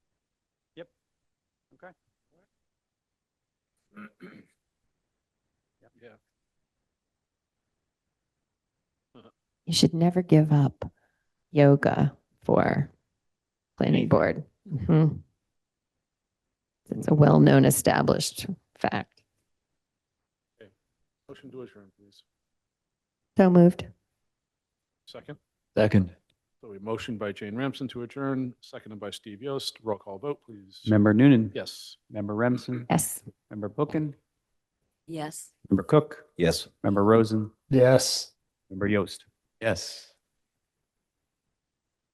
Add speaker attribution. Speaker 1: Yep. Okay. Yep.
Speaker 2: Yeah.
Speaker 3: You should never give up yoga for planning board. Mhm. It's a well-known established fact.
Speaker 2: Motion to adjourn, please.
Speaker 3: So moved.
Speaker 2: Second.
Speaker 4: Second.
Speaker 2: So a motion by Jane Ramsden to adjourn, seconded by Steve Yost. Roll call vote, please.
Speaker 4: Member Noonan.
Speaker 2: Yes.
Speaker 4: Member Remsen.
Speaker 3: Yes.
Speaker 4: Member Bookin.
Speaker 5: Yes.
Speaker 4: Member Cook.
Speaker 6: Yes.
Speaker 4: Member Rosen.
Speaker 6: Yes.
Speaker 4: Member Yost. Yes.